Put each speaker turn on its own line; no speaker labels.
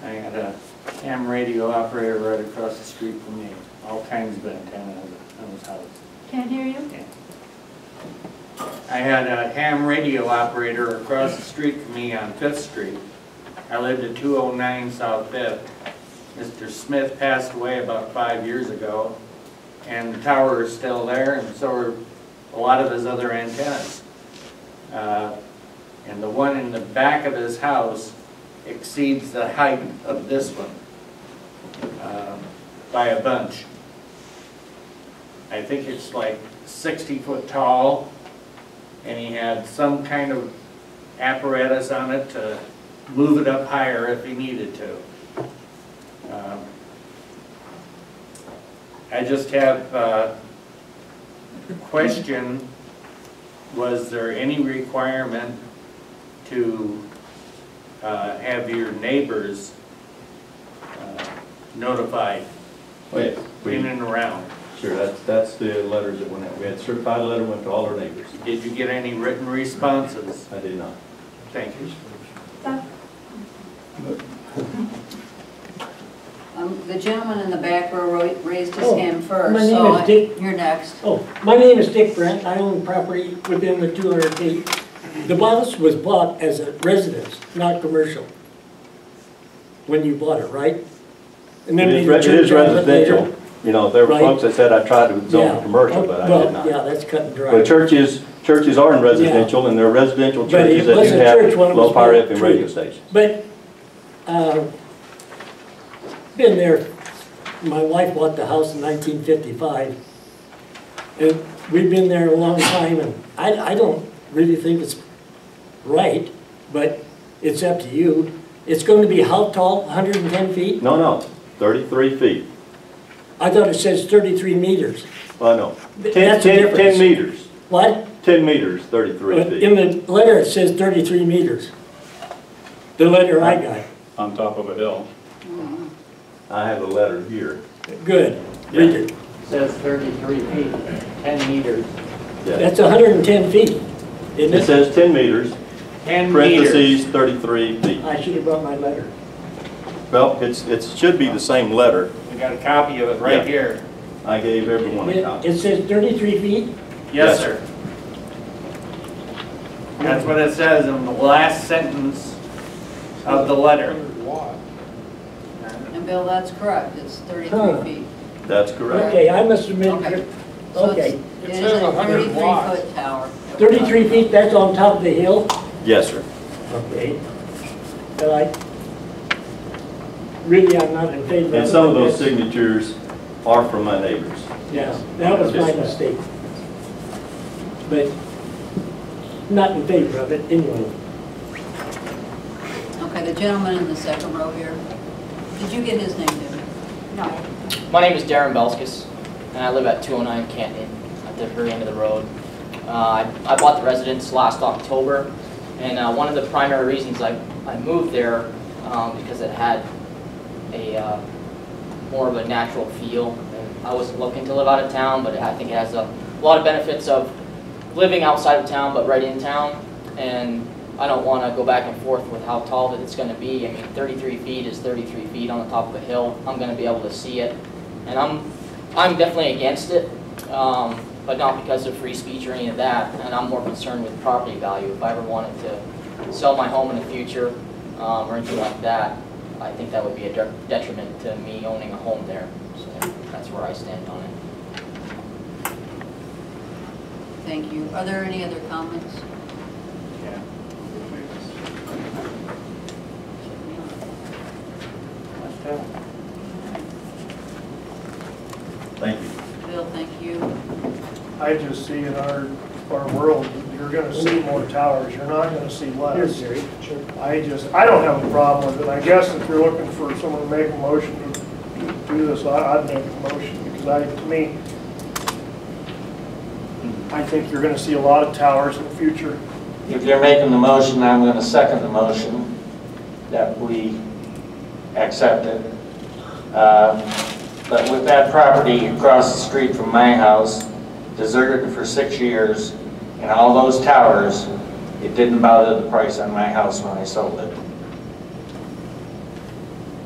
ham radio operator right across the street from me, all kinds of antennas on his house.
Can't hear you?
I had a ham radio operator across the street from me on Fifth Street. I lived at two oh nine South Fifth. Mr. Smith passed away about five years ago, and the tower is still there, and so are a lot of his other antennas. Uh, And the one in the back of his house exceeds the height of this one um, by a bunch. I think it's like 60 foot tall, and he had some kind of apparatus on it to move it up higher if he needed to. Um, I just have uh, a question, was there any requirement to uh, have your neighbors uh, notified
Oh, yes,
in
we,
and around?
sure, that's, that's the letters that went out. We had certified letter went to all our neighbors.
Did you get any written responses?
I did not.
Thank you.
Stop.
Um, The gentleman in the back row ra- raised his
Oh,
hand first,
my name
so
is
I-
Dick.
you're next.
Oh, my name is Dick Brandt, I own property within the 200 feet. The house was bought as a residence, not commercial, when you bought it, right? And then
It
they
is re- it is
turned it down later.
residential. You know, there were
Right.
folks that said I tried to zone it
Yeah.
commercial, but I did
Well, yeah,
not.
that's cut and
But
dry.
churches, churches are in residential, and there are residential
But it
churches that do
wasn't church
have
when it was
low-power
built,
FM
true.
radio stations.
But, uh, been there, my wife bought the house in 1955, and we've been there a long time, and I, I don't really think it's right, but it's up to you. It's going to be how tall, 110 feet?
No, no, thirty-three feet.
I thought it says 33 meters.
Well, no,
Th-
ten,
that's the
ten,
difference.
ten meters.
What?
Ten meters, thirty-three
But In
feet.
the letter, it says 33 meters, the letter I got.
on top of a hill.
I have a letter here.
Good, read it.
Says 33 feet, 10 meters.
Yeah.
That's 110 feet, isn't
It
it?
says ten meters,
10 meters.
parentheses, thirty-three feet.
I should have brought my letter.
Well, it's, it should be the same letter.
We got a copy of it right
Yeah.
here.
I gave everyone a
It
copy.
it says 33 feet?
Yes,
Yes.
sir. That's what it says in the last sentence of the letter.
And Bill, that's correct, it's
Huh.
33 feet.
That's correct.
Okay, I must have
Okay.
admit,
So it's-
Okay.
It is a 33-foot tower.
33 feet, that's on top of the hill?
Yes, sir.
Okay. But I, really, I'm not in favor of
And some of those
this.
signatures are from my neighbors.
Yeah, that was my
Yes.
mistake. But not in favor of it anyway.
Okay, the gentleman in the second row here. Did you get his name, David?
No.
My name is Darren Belskis, and I live at 209 Canton, at the very end of the road. Uh, I I bought the residence last October, and uh, one of the primary reasons I I moved there, um, because it had a, uh, more of a natural feel. And I wasn't looking to live out of town, but I think it has a lot of benefits of living outside of town, but right in town. And I don't want to go back and forth with how tall that it's going to be. I mean, 33 feet is 33 feet on the top of a hill. I'm going to be able to see it. And I'm, I'm definitely against it, um, but not because of free speech or any of that. And I'm more concerned with property value. If I ever wanted to sell my home in the future um, or anything like that, I think that would be a de- detriment to me owning a home there. So that's where I stand on it.
Thank you. Are there any other comments?
Thank you.
Bill, thank you.
I just see in our, our world, you're gonna see more towers, you're not gonna see
Here's
less.
Jerry. Sure.
I just, I don't have a problem with it, I guess if you're looking for someone to make a motion to do this, I, I'd make a motion, because I, to me, I think you're gonna see a lot of towers in the future.
If you're making the motion, I'm going to second the motion that we accept it. Um, But with that property across the street from my house, deserted for six years, and all those towers, it didn't bother the price on my house when I sold it.